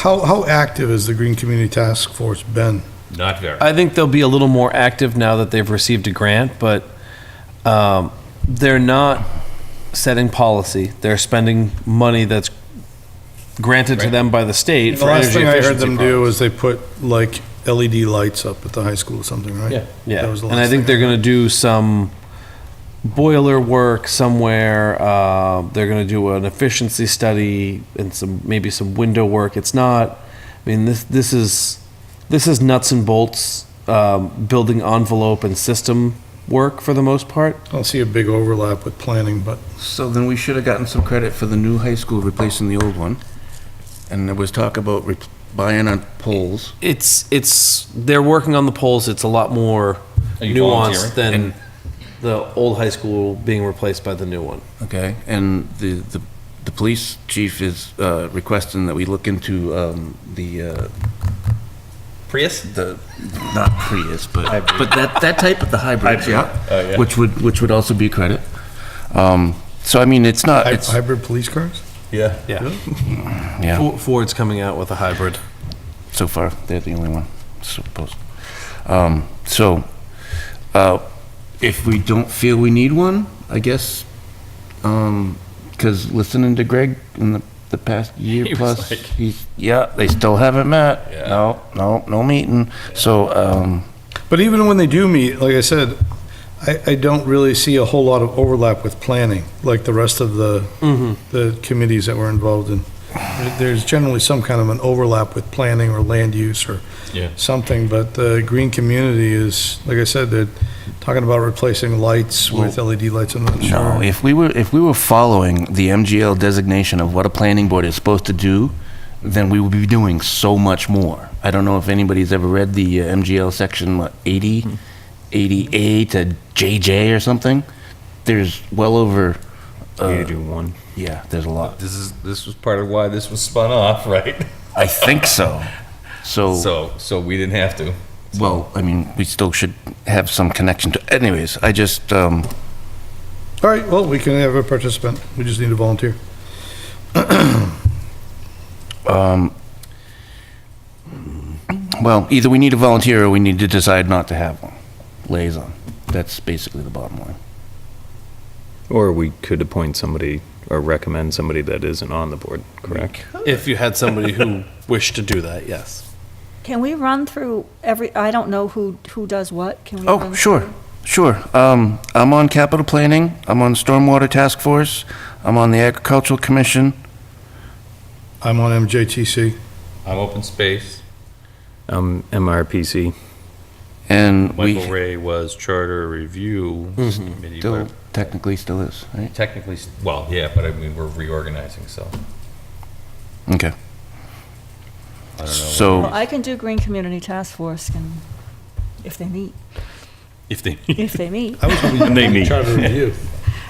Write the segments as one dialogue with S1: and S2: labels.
S1: How, how active has the Green Community Task Force been?
S2: Not very.
S3: I think they'll be a little more active now that they've received a grant, but um, they're not setting policy. They're spending money that's granted to
S2: Right.
S3: them by the state
S1: The
S3: for
S1: last
S3: energy
S1: thing I heard them do
S3: efficiency products.
S1: was they put like LED lights up at the high school or something, right?
S2: Yeah.
S3: Yeah,
S1: That was the
S3: and I
S1: last thing
S3: think they're gonna do some boiler work somewhere. uh, They're gonna do an efficiency study and some, maybe some window work. It's not, I mean, this, this is, this is nuts and bolts, um, building envelope and system work for the most part.
S1: I don't see a big overlap with planning, but
S4: So then we should have gotten some credit for the new high school replacing the old one. And there was talk about re- buying on poles.
S3: It's, it's, they're working on the polls. It's a lot more
S2: Are you
S3: nuanced
S4: volunteering?
S3: than the old high school being replaced by the new one.
S4: Okay. And the, the, the police chief is uh, requesting that we look into um, the, uh,
S2: Prius?
S4: the, not Prius, but, but that, that type of the hybrids, yeah?
S2: Oh, yeah.
S4: Which would, which would also be credit. Um, So I mean, it's not,
S1: hy-
S4: it's,
S1: hybrid police cars?
S2: Yeah.
S3: Yeah.
S4: yeah,
S3: Fo- Ford's coming out with a hybrid.
S4: so far, they're the only one, supposed. Um, So, uh, if we don't feel we need one, I guess, because listening to Greg in the, the past
S2: He
S4: year
S2: was
S4: plus,
S2: like-
S4: he's, yeah, they still haven't met.
S2: Yeah.
S4: No, no, no meeting, so, um,
S1: But even when they do meet, like I said, I, I don't really see a whole lot of overlap with planning, like the rest of the,
S2: Mm-hmm.
S1: the committees that we're involved in. There- There's generally some kind of an overlap with planning or land use or
S2: Yeah.
S1: something, but the green community is, like I said, they're talking about replacing lights with LED lights, I'm not
S4: No,
S1: sure.
S4: if we were, if we were following the MGL designation of what a planning board is supposed to do, then we would be doing so much more. I don't know if anybody's ever read the uh, MGL section, what, 80, 80A to JJ or something? There's well over,
S2: You do one.
S4: yeah, there's a lot.
S2: Uh, This is, this was part of why this was spun off, right?
S4: I think so.
S5: Oh.
S4: So,
S2: So, so we didn't have to.
S4: well, I mean, we still should have some connection to, anyways, I just, um,
S1: All right, well, we can have a participant, we just need a volunteer.
S4: well, either we need a volunteer or we need to decide not to have one. Liaison. That's basically the bottom line.
S5: Or we could appoint somebody or recommend somebody that isn't on the board, correct?
S3: If you had somebody who wished to do that, yes.
S6: Can we run through every, I don't know who, who does what, can we?
S4: Oh,
S6: run
S4: sure,
S6: through?
S4: sure. Um, I'm on capital planning, I'm on stormwater task force, I'm on the agricultural commission,
S1: I'm on MJTC.
S2: I'm open space.
S5: Um, MRPC.
S4: and
S2: Michael
S4: we
S2: Ray was charter review committee.
S4: still,
S2: but
S4: technically still is, right?
S2: Technically, s- well, yeah, but I mean, we're reorganizing, so
S4: Okay,
S2: I don't know.
S6: Well,
S4: so,
S6: I can do Green Community Task Force and, if they meet,
S2: If they.
S6: if they meet.
S1: I was hoping
S5: They
S1: you'd
S5: meet.
S1: charter review.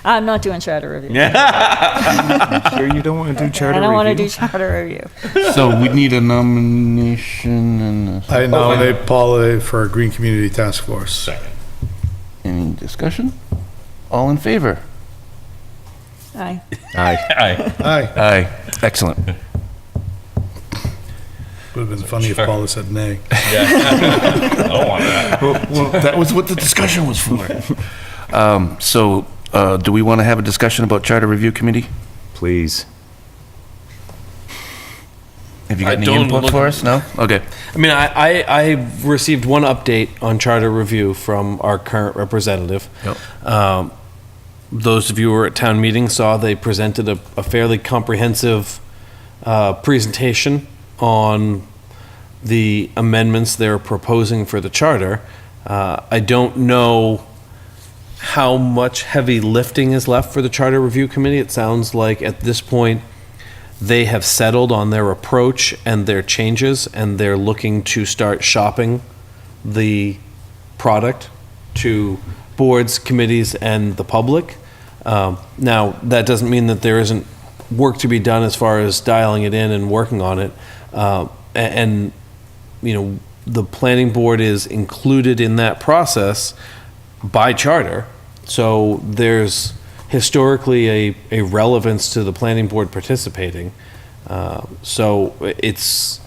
S6: I'm not doing charter review.
S5: Sure you don't want to do
S6: I don't want to do charter review.
S4: so we need a nomination and a-
S1: I nominate Paula for a Green Community Task Force.
S2: Second.
S4: any discussion? All in favor?
S6: Aye.
S2: Aye.
S1: Aye.
S4: Aye. Excellent.
S1: Would have been funny if Paula said nay.
S2: I don't want that.
S4: Well, that was what the discussion was for. Um, so, uh, do we want to have a discussion about charter review committee?
S5: Please.
S4: Have you
S3: I
S4: got any
S3: don't
S4: input
S3: look-
S4: for us? No? Okay.
S3: I mean, I, I, I received one update on charter review from our current representative. Yep. Um, those of you who were at town meeting saw they presented a, a fairly comprehensive uh, presentation on the amendments they're proposing for the charter. Uh, I don't know how much heavy lifting is left for the charter review committee. It sounds like at this point, they have settled on their approach and their changes, and they're looking to start shopping the product to boards, committees, and the public. Um, Now, that doesn't mean that there isn't work to be done as far as dialing it in and working on it. Uh, a- And, you know, the planning board is included in that process by charter. So there's historically a, a relevance to the planning board participating. Um, Uh, So it's,